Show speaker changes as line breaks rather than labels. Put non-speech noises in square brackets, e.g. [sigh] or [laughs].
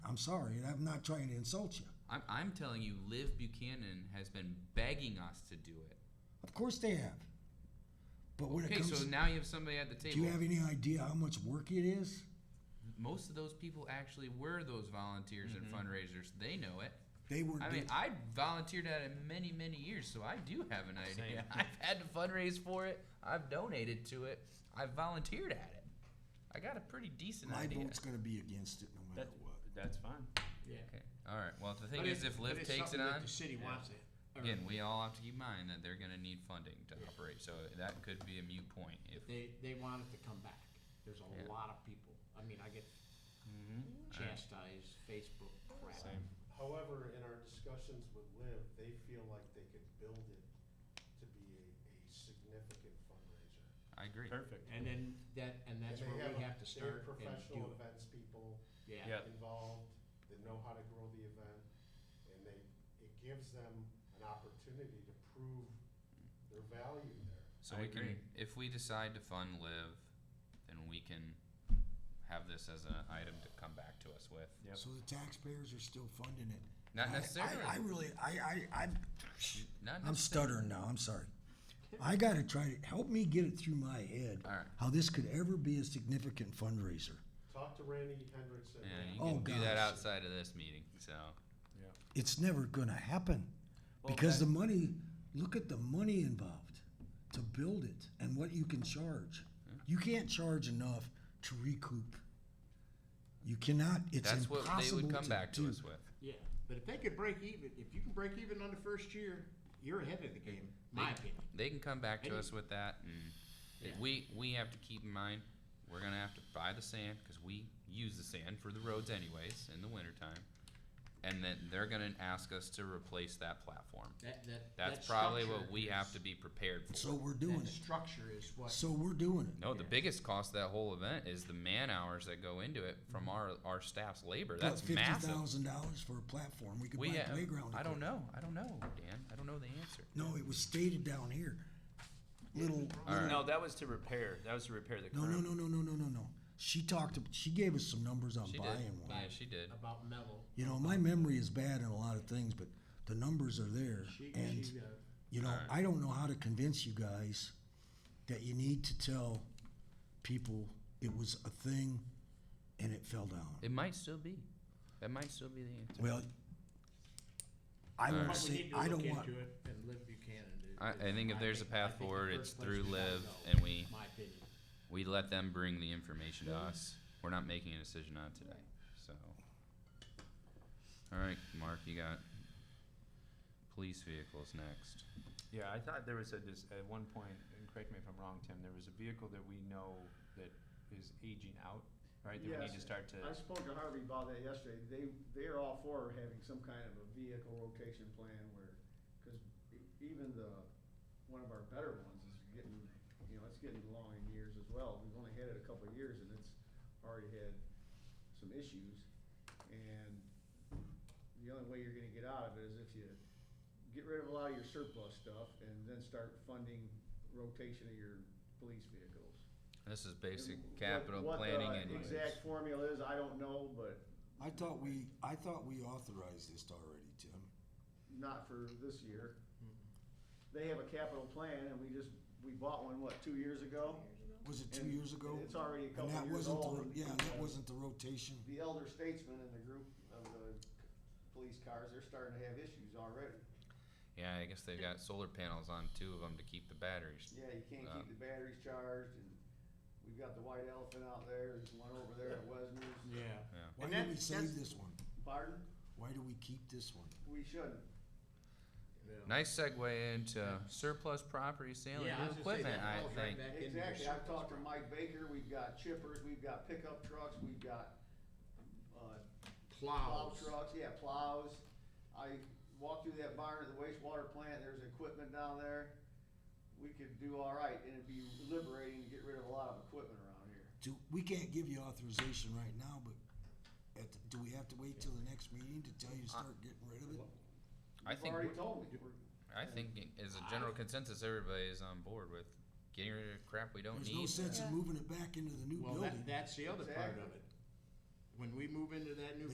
I'm sorry, and I'm not trying to insult you.
I'm, I'm telling you, Liv Buchanan has been begging us to do it.
Of course they have. But when it
Okay,
comes,
so now you have somebody at the table.
do you have any idea how much work it is?
Most of those people actually were those volunteers
Mm-hmm.
and fundraisers. They know it.
They were.
I mean, I volunteered at it many, many years, so I do have an idea. [laughs]
Same.
I've had to fundraise for it. I've donated to it. I've volunteered at it. I got a pretty decent
my
idea.
vote's going to be against it no matter
That,
what.
that's fine.
Yeah.
Okay. All right. Well, the thing
But
is, if
it- but
Liv
it's
takes it
something
on,
that the city
Yeah.
wants it. or
again, we all have to keep in mind that they're going to need funding to operate. So that could be a mute point. If
They they want it to come back. There's a
Yeah. Mm-hmm.
lot of people. I mean, I get chastised Facebook crap.
Same.
However, in our discussions with Liv, they feel like they could build it to be a, a significant fundraiser.
I agree.
Perfect.
And then that and that's
And they
where we
a-
have to
they
start and
have
do
professional
it.
events people
Yeah.
Yeah.
involved that know how to grow the event, and they, it gives them an opportunity to prove their value there.
So we
I agree.
can, if we decide to fund Live, then we can have this as an item to come back to us with.
Yep.
So the taxpayers are still funding it.
Not
I-
necessarily.
I, I really, I, I, I'm,
Not
I'm stuttering now. I'm sorry. I got to try to help me get it through my head
All right.
how this could ever be a significant fundraiser.
Talk to Randy Hendrickson.
Yeah, you
Oh,
can do that
gosh.
outside of this meeting. So
It's never going to happen because the money. Look at the money involved to build it and what you can charge.
Hmm?
You can't charge enough to recoup. You cannot. It's
that's what
impossible
they would come
to
back to
do.
us with.
Yeah. But if they could break even, if you can break even on the first year, you're ahead of the game. My opinion.
They can come back to
Any-
us with that, and if
Yeah.
we we have to keep in mind we're gonna have to buy the sand because we use the sand for the roads anyways in the wintertime, and then they're gonna ask us to replace that platform.
That that
That's
that
probably
structure
what we
is-
have to be prepared for.
So we're doing
That
it.
structure is what.
So we're doing it.
No, the biggest cost of that whole event is the man hours that go into it from our our staff's labor. That's
Mm-hmm. fifty
massive.
thousand dollars for a platform. We could
We
buy
have,
playground.
I don't
equipment.
know. I don't know, Dan. I don't know the answer.
No, it was stated down here. Little.
All right.
No, that was to repair. That was to repair the
No,
curb.
no, no, no, no, no, no, no. She talked. ab- She gave us some numbers on
She did.
buying one.
Yeah, she did.
about mellow.
You know, my memory is bad in a lot of things, but the numbers are there.
She,
and
she, uh,
you know, I don't know how to convince you guys that you need to tell people it was a thing and it fell down.
It might still be. That might still be the answer.
well, I
All
want
right.
to
But we
say
need to
I
look
don't
into
want.
it and Liv Buchanan. is-
I, I think if there's a
I
path
think the
forward, it's
first place
through
we gotta
Liv,
go,
and we
My opinion.
we let them bring the information to us. We're not making a decision on it today. So, all right, Mark, you got police vehicles next.
Yeah, I thought there was a dis- at one point, and correct me if I'm wrong, Tim. There was a vehicle that we know that is aging out, right? That we need to
Yes.
start to.
I spoke to Harvey about that yesterday. They, they're all for having some kind of a vehicle rotation plan where, cause e- even the, one of our better ones is getting, you know, it's getting long in years as well. We've only had it a couple of years and it's already had some issues. And the only way you're gonna get out of it is if you get rid of a lot of your surplus stuff and then start funding rotation of your police vehicles.
This is basic
What-
capital
what the
planning and
Exact formula is, I don't know, but
I thought we. I thought we authorized this already, Tim.
not for this year. They have a capital plan and we just, we bought one, what, two years ago?
Was it two
And
years ago?
it's already a
And
couple
that
years
wasn't the
old
ro-
and-
Yeah,
and,
that
uh,
wasn't the rotation.
The elder statesmen in the group of the police cars, they're starting to have issues already.
Yeah, I guess they've got solar panels on two of them to keep the batteries.
Yeah, you can't
Uh.
keep the batteries charged and we've got the white elephant out there, there's one over there at Wesner's.
Yeah.
Why
And
did
that-
we save
that's-
this one?
Pardon?
Why do we keep this one?
We shouldn't.
Nice segue into surplus property sale
Yeah, I
and
was
new
gonna say
equipment.
that
I
falls right
think.
back into your
Exactly, I've
surplus
talked to
property.
Mike Baker, we've got chippers, we've got pickup trucks, we've got, uh, plow
Plows.
trucks, yeah, plows. I walked through that barn at the wastewater plant, there's equipment down there. We could do all right, and it'd be liberating to get rid of a lot of equipment around here.
Do, we can't give you authorization right now, but at, the- do we have to wait till the next meeting to tell you to start getting rid of it?
I
You've
think
already
we're-
told me, we're-
I think as a general consensus, everybody is on board with getting rid of crap we don't
There's no
need.
sense in moving it back into the new
Well,
building.
that, that's the other part of
Exactly.
it. When we move into that new